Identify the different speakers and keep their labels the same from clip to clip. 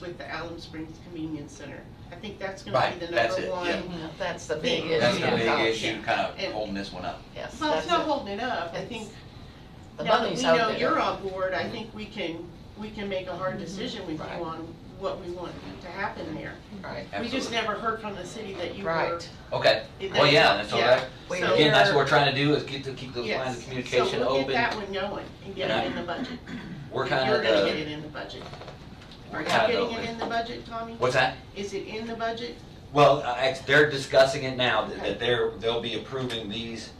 Speaker 1: with the Alum Springs Convenience Center. I think that's gonna
Speaker 2: Right,
Speaker 1: be the
Speaker 2: that's
Speaker 1: number
Speaker 2: it,
Speaker 1: one.
Speaker 2: yeah.
Speaker 3: That's the big issue.
Speaker 2: That's the
Speaker 3: Oh,
Speaker 2: big issue, kind of
Speaker 1: And-
Speaker 2: holding this one up.
Speaker 3: Yes,
Speaker 1: Well, it's
Speaker 3: that's
Speaker 1: not
Speaker 3: it.
Speaker 1: holding it up, I think,
Speaker 3: The
Speaker 1: now that we
Speaker 3: money's out there.
Speaker 1: know you're on board, I think we can, we can make a hard decision with
Speaker 3: Right.
Speaker 1: you on what we want to happen there.
Speaker 3: Right,
Speaker 1: We just
Speaker 2: Absolutely.
Speaker 1: never heard from the city that you were.
Speaker 3: right.
Speaker 2: Okay,
Speaker 1: it-
Speaker 2: well, yeah, that's all that,
Speaker 3: We
Speaker 1: so-
Speaker 2: again, that's what we're trying to do, is get to keep those
Speaker 1: Yes.
Speaker 2: lines of communication
Speaker 1: So we'll get
Speaker 2: open.
Speaker 1: that one going and get it in the budget.
Speaker 2: We're kind
Speaker 1: You're
Speaker 2: of,
Speaker 1: gonna
Speaker 2: uh,
Speaker 1: get it in the budget. Are
Speaker 2: we're
Speaker 1: you
Speaker 2: kind
Speaker 1: getting it
Speaker 2: of,
Speaker 1: in the budget, Tommy?
Speaker 2: what's that?
Speaker 1: Is it in the budget?
Speaker 2: Well, I- I- they're discussing it now, that-
Speaker 1: Okay.
Speaker 2: that they're, they'll be approving these,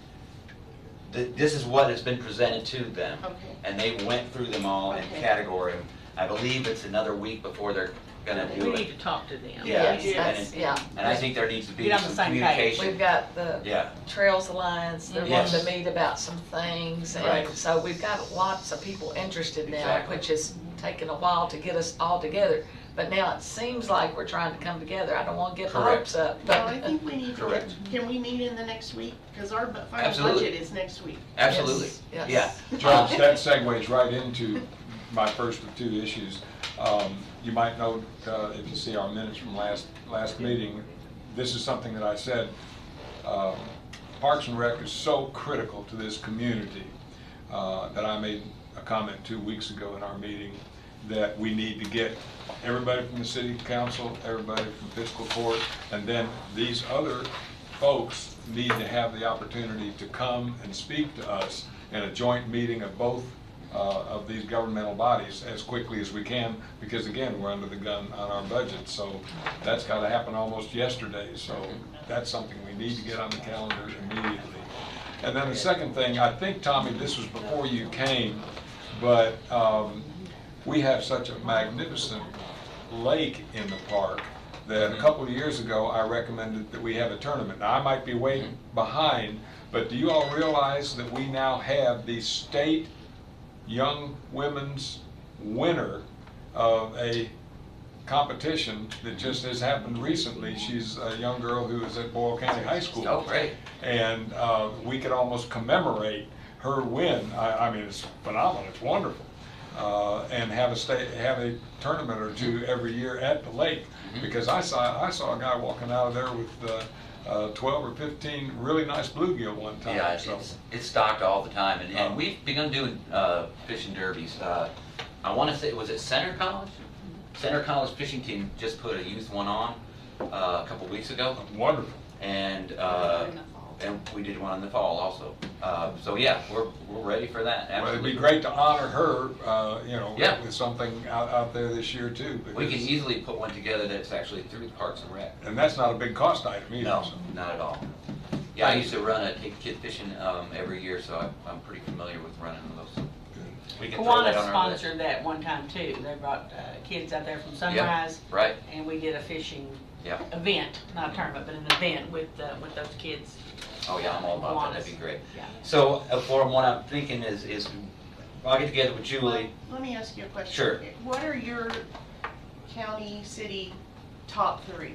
Speaker 2: th- this is what has been presented to them.
Speaker 1: Okay.
Speaker 2: And they went through them all in
Speaker 1: Okay.
Speaker 2: category. I believe it's another week before they're gonna
Speaker 4: We
Speaker 2: do
Speaker 4: need
Speaker 2: it.
Speaker 4: to talk to them.
Speaker 2: Yeah,
Speaker 3: Yes,
Speaker 2: and
Speaker 3: that's-
Speaker 2: it-
Speaker 3: yeah.
Speaker 2: And I think there needs to be
Speaker 4: Get on the
Speaker 2: some
Speaker 4: same page.
Speaker 2: communication.
Speaker 3: We've got the
Speaker 2: Yeah,
Speaker 3: Trails Alliance, they're
Speaker 2: Mm-hmm. Yes.
Speaker 3: wanting to meet about some things, and
Speaker 2: Right.
Speaker 3: so we've got lots of people interested now,
Speaker 2: Exactly.
Speaker 3: which has taken a while to get us all together. But now it seems like we're trying to come together, I don't wanna get my
Speaker 2: Correct.
Speaker 3: hopes up,
Speaker 1: No, I
Speaker 3: but,
Speaker 1: think we need to,
Speaker 2: Correct.
Speaker 1: get- can we meet in the next week? Because our bu- final
Speaker 2: Absolutely.
Speaker 1: budget is next week.
Speaker 2: absolutely,
Speaker 3: Yes,
Speaker 2: yeah. Um,
Speaker 3: yes.
Speaker 5: Judge, that segues right into my first of two issues. Um, You might note, uh, if you see our minutes from last, last meeting, this is something that I said, um, Parks and Rec is so critical to this community uh, that I made a comment two weeks ago in our meeting that we need to get everybody from the city council, everybody from fiscal court, and then these other folks need to have the opportunity to come and speak to us in a joint meeting of both uh, of these governmental bodies as quickly as we can, because again, we're under the gun on our budget, so that's got to happen almost yesterday, so that's something we need to get on the calendar immediately. And then the second thing, I think, Tommy, this was before you came, but um, we have such a magnificent lake in the park that a
Speaker 2: Mm-hmm.
Speaker 5: couple of years ago, I recommended that we have a tournament. Now, I might be way
Speaker 2: Mm-hmm.
Speaker 5: behind, but do you all realize that we now have the state young women's winner of a competition that just has happened recently? She's a young girl who is at Boyle County High School
Speaker 2: Oh, great.
Speaker 5: and uh, we could almost commemorate her win. I, I mean, it's phenomenal. It's wonderful, uh, and have a stay, have a tournament or two every year at the lake
Speaker 2: Mm-hmm.
Speaker 5: because I saw I saw a guy walking out of there with uh, uh, 12 or 15 really nice bluegill one time.
Speaker 2: Yeah,
Speaker 5: so
Speaker 2: it's, it's stocked all the time, and, and
Speaker 5: Oh.
Speaker 2: we've begun doing, uh, fishing derbies, uh, I wanna say, was it Center College? Center College Fishing Team just put a youth one on, uh, a couple weeks ago,
Speaker 5: wonderful.
Speaker 2: and, uh, and we did one in the fall also, uh, so yeah, we're, we're ready for that,
Speaker 5: Well, it'd
Speaker 2: absolutely.
Speaker 5: be great to honor her, uh, you know,
Speaker 2: Yeah.
Speaker 5: with something out, out there this year too.
Speaker 2: We can
Speaker 5: because-
Speaker 2: easily put one together that's actually through the Parks and Rec.
Speaker 5: and that's not a big cost item either.
Speaker 2: No,
Speaker 5: so.
Speaker 2: not at all. Yeah, I used to run a take kid fishing, um, every year, so I'm, I'm pretty familiar with running those. We can throw that
Speaker 4: Kiwanis
Speaker 2: on our list.
Speaker 4: sponsored that one time too. They brought uh, kids out there from
Speaker 2: Yeah,
Speaker 4: Sunrise
Speaker 2: right,
Speaker 4: and we did a fishing
Speaker 2: yeah.
Speaker 4: event, not a tournament, but an event with, uh, with those kids.
Speaker 2: Oh, yeah, I'm all about that, that'd be
Speaker 4: Kiwanis.
Speaker 2: great.
Speaker 4: Yeah.
Speaker 2: So, uh, for what I'm thinking is, is, I'll get together with Julie.
Speaker 1: Let me ask you a question.
Speaker 2: Sure.
Speaker 1: What are your county, city top three?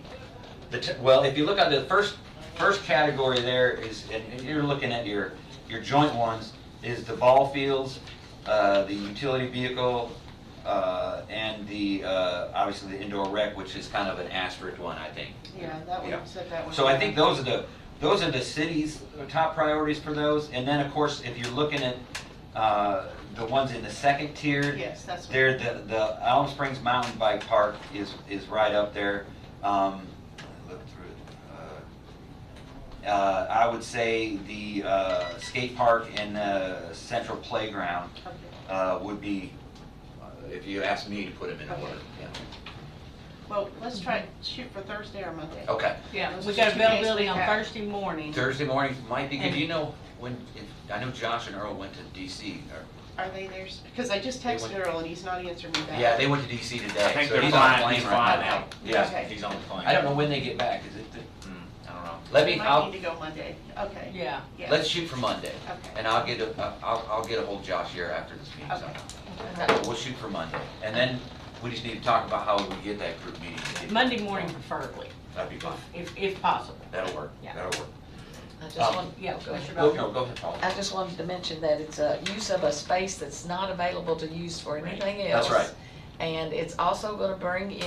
Speaker 2: The, t- well, if you look at the first, first category there is, and and you're looking at your, your joint ones, is the ball fields, uh, the utility vehicle, uh, and the, uh, obviously the indoor rec, which is kind of an asterisk one, I think.
Speaker 1: Yeah, that
Speaker 2: Yeah.
Speaker 1: one, set that one.
Speaker 2: So I
Speaker 1: down.
Speaker 2: think those are the, those are the city's top priorities for those, and then, of course, if you're looking at, uh, the ones in the second tier.
Speaker 1: Yes, that's what-
Speaker 2: There, the, the Alum Springs Mountain Bike Park is, is right up there, um, look through it. Uh, uh, I would say the, uh, skate park and, uh, central playground,
Speaker 1: Okay.
Speaker 2: uh, would be, uh, if you ask me to put them in
Speaker 1: Okay.
Speaker 2: order, yeah.
Speaker 1: Well, let's try, shoot for Thursday or Monday.
Speaker 2: Okay,
Speaker 4: Yeah,
Speaker 1: Those
Speaker 4: we
Speaker 1: are
Speaker 4: got
Speaker 1: two days
Speaker 4: availability
Speaker 1: we
Speaker 4: on
Speaker 1: have.
Speaker 4: Thursday morning.
Speaker 2: Thursday morning might be, good.
Speaker 4: And-
Speaker 2: you know, when, if, I know Josh and Earl went to DC, or
Speaker 1: Are they there? Because I just
Speaker 2: They
Speaker 1: texted
Speaker 2: went-
Speaker 1: Earl and he's not answering me back.
Speaker 2: Yeah, they went to DC today.
Speaker 6: I think
Speaker 2: so
Speaker 6: they're
Speaker 2: he's on a
Speaker 6: flying, he's
Speaker 2: plane right
Speaker 6: flying
Speaker 2: now.
Speaker 6: out.
Speaker 2: Yeah,
Speaker 1: Okay.
Speaker 6: He's on the plane.
Speaker 2: I don't know when they get back, is it, the- hmm, I don't know. Let me,
Speaker 1: Might
Speaker 2: I'll,
Speaker 1: need to go Monday. Okay.
Speaker 4: Yeah.
Speaker 1: Yeah.
Speaker 2: let's shoot for Monday,
Speaker 1: Okay.
Speaker 2: and I'll get, a- uh, I'll, I'll get ahold of Josh here after this meeting
Speaker 1: Okay.
Speaker 2: somehow. But We'll shoot for Monday, and then we just need to talk about how we get that group meeting.
Speaker 4: Monday morning preferably,
Speaker 2: That'd be fine,
Speaker 4: if, if possible.
Speaker 2: that'll work,
Speaker 4: Yeah.
Speaker 2: that'll work.
Speaker 3: I just
Speaker 2: Um,
Speaker 3: want,
Speaker 4: Yeah,
Speaker 3: go ahead.
Speaker 4: Commissioner
Speaker 2: Go,
Speaker 4: Bowden.
Speaker 2: no, go ahead, Paul.
Speaker 3: I just wanted to mention that it's a use of a space that's not available to use for anything
Speaker 2: That's
Speaker 3: else.
Speaker 2: right.
Speaker 3: And it's also gonna bring